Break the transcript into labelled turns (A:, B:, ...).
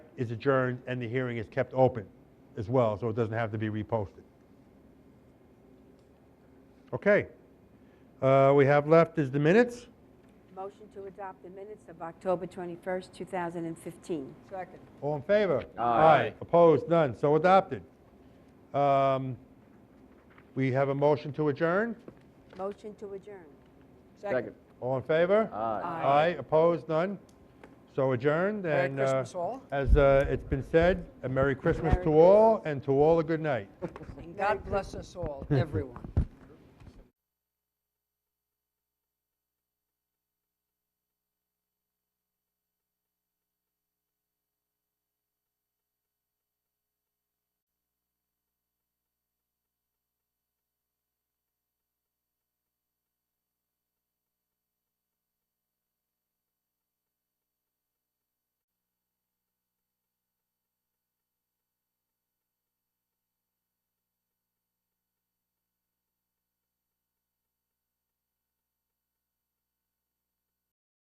A: is adjourned and the hearing is kept open as well, so it doesn't have to be reposted. Okay. Uh, We have left is the minutes.
B: Motion to adopt the minutes of October 21st, 2015.
C: Second.
A: All in favor?
D: Aye.
A: Opposed? None. So adopted. Um, We have a motion to adjourn.
B: Motion to adjourn.
D: Second.
A: All in favor?
D: Aye.
A: Aye, opposed, none? So adjourned,
C: Merry
A: and... uh,
C: Christmas all.
A: As uh, it's been said, a Merry Christmas
B: Merry
A: to all, and to all a good night.
C: And God bless us all, everyone.